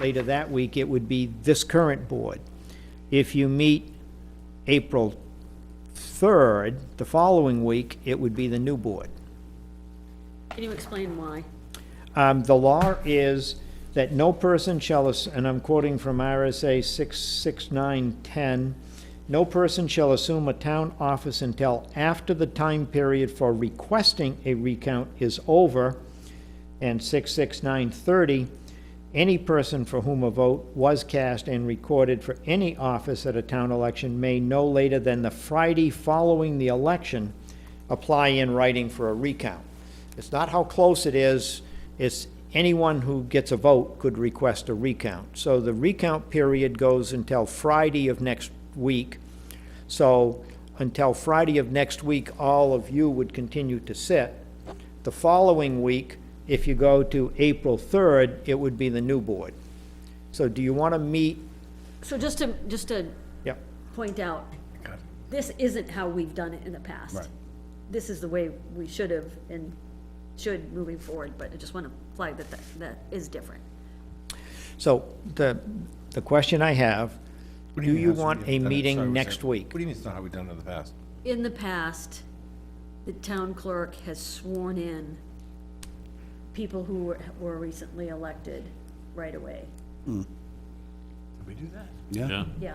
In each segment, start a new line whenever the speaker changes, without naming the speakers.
later that week, it would be this current board. If you meet April 3rd, the following week, it would be the new board.
Can you explain why?
Um, The law is that no person shall, ass- and I'm quoting from RSA 66910, "No person shall assume a town office until after the time period for requesting a recount is over." And 66930, "Any person for whom a vote was cast and recorded for any office at a town election may no later than the Friday following the election apply in writing for a recount." It's not how close it is, it's anyone who gets a vote could request a recount. So the recount period goes until Friday of next week. So until Friday of next week, all of you would continue to sit. The following week, if you go to April 3rd, it would be the new board. So do you want to meet,
So just to, just to
yep,
point out, this isn't how we've done it in the past.
Right.
This is the way we should have and should moving forward, but I just want to flag that, that, that is different.
so the, the question I have,
What
do
mean
you
that's what
want
we
a
haven't done it? Sorry,
meeting
we're
next
saying-
week?
What do you mean it's not how we've done it in the past?
In the past, the town clerk has sworn in people who were, were recently elected right away.
Did we do that? Oh.
Yeah.
Yeah,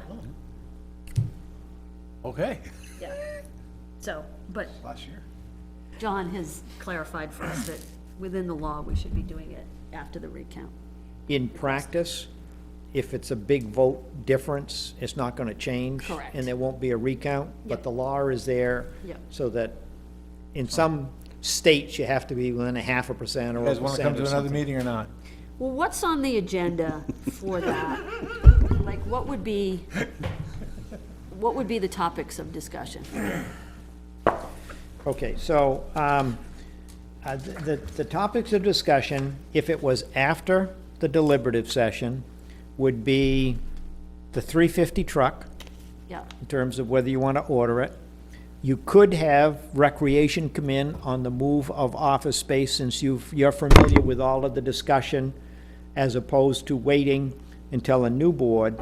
Okay.
yeah. So, but
Last year.
John has clarified for us that within the law, we should be doing it after the recount.
In practice, if it's a big vote difference, it's not going to change.
Correct.
And there won't be a recount, but
Yeah.
the law is there.
Yeah.
So that in some states, you have to be within a half a percent or
You
a
guys want to come
percent
to
or
another
something.
meeting or not?
Well, what's on the agenda for that? Like, what would be, what would be the topics of discussion?
Okay, so um, uh, the, the- the topics of discussion, if it was after the deliberative session, would be the 350 truck.
Yeah,
in terms of whether you want to order it. You could have recreation come in on the move of office space, since you've, you're familiar with all of the discussion, as opposed to waiting until a new board.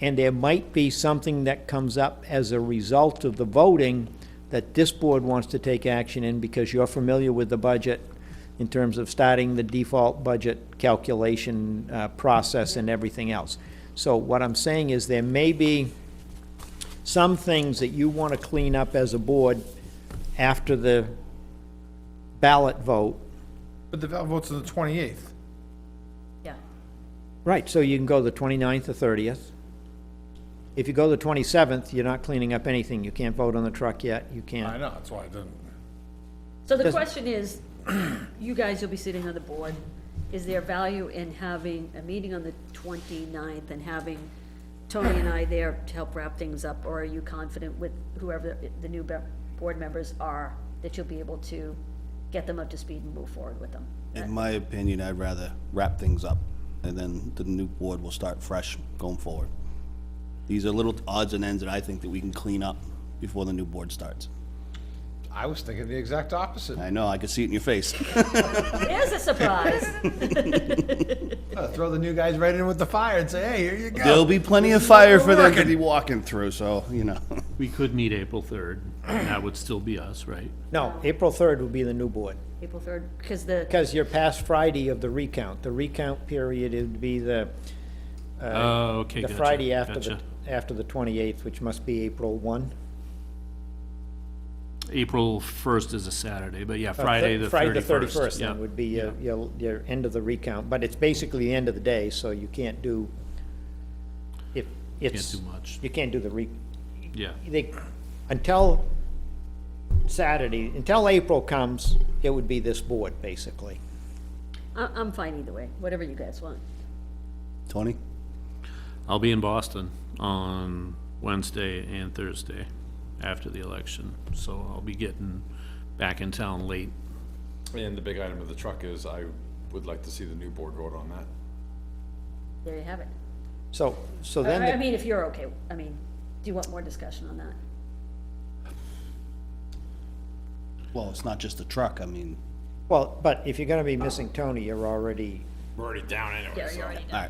And there might be something that comes up as a result of the voting that this board wants to take action in, because you're familiar with the budget in terms of starting the default budget calculation uh, process and everything else. So what I'm saying is, there may be some things that you want to clean up as a board after the ballot vote.
But the ballot vote's on the 28th.
yeah.
Right, so you can go the 29th or 30th. If you go the 27th, you're not cleaning up anything. You can't vote on the truck yet, you
I
can't.
know, that's why I didn't.
So the
Does-
question is, you guys will be sitting on the board, is there value in having a meeting on the 29th and having Tony and I there to help wrap things up? Or are you confident with whoever the new be- board members are, that you'll be able to get them up to speed and move forward with them?
In my opinion, I'd rather wrap things up, and then the new board will start fresh going forward. These are little odds and ends that I think that we can clean up before the new board starts.
I was thinking the exact opposite.
I know, I can see it in your face.
There's a surprise.
Uh, Throw the new guys right in with the fire and say, hey, here you go.
There'll be plenty of fire for them to be walking through, so, you know.
We could meet April 3rd, and that would still be us, right?
No, April 3rd will be the new board,
April 3rd, because the.
because you're past Friday of the recount. The recount period would be the,
Oh, okay,
Uh, the
gotcha.
Friday after the,
gotcha.
after the 28th, which must be April 1.
April 1st is a Saturday, but yeah, Friday, the 31st.
Uh, Friday, the thirty-first,
yeah.
then, would be your, your, your end of the recount, but it's basically the end of the day, so you can't do, if, it's.
do much.
You can't do the re,
Yeah,
they, until Saturday, until April comes, it would be this board, basically.
I- I'm fine either way, whatever you guys want.
Tony?
I'll be in Boston on Wednesday and Thursday after the election, so I'll be getting back in town late.
And the big item of the truck is I would like to see the new board vote on that.
There you have it.
So, so then,
I I
the-
mean, if you're okay, I mean, do you want more discussion on that?
Well, it's not just the truck, I mean,
well, but if you're gonna be missing Tony, you're already
We're already down anyway,
Yeah, you already done.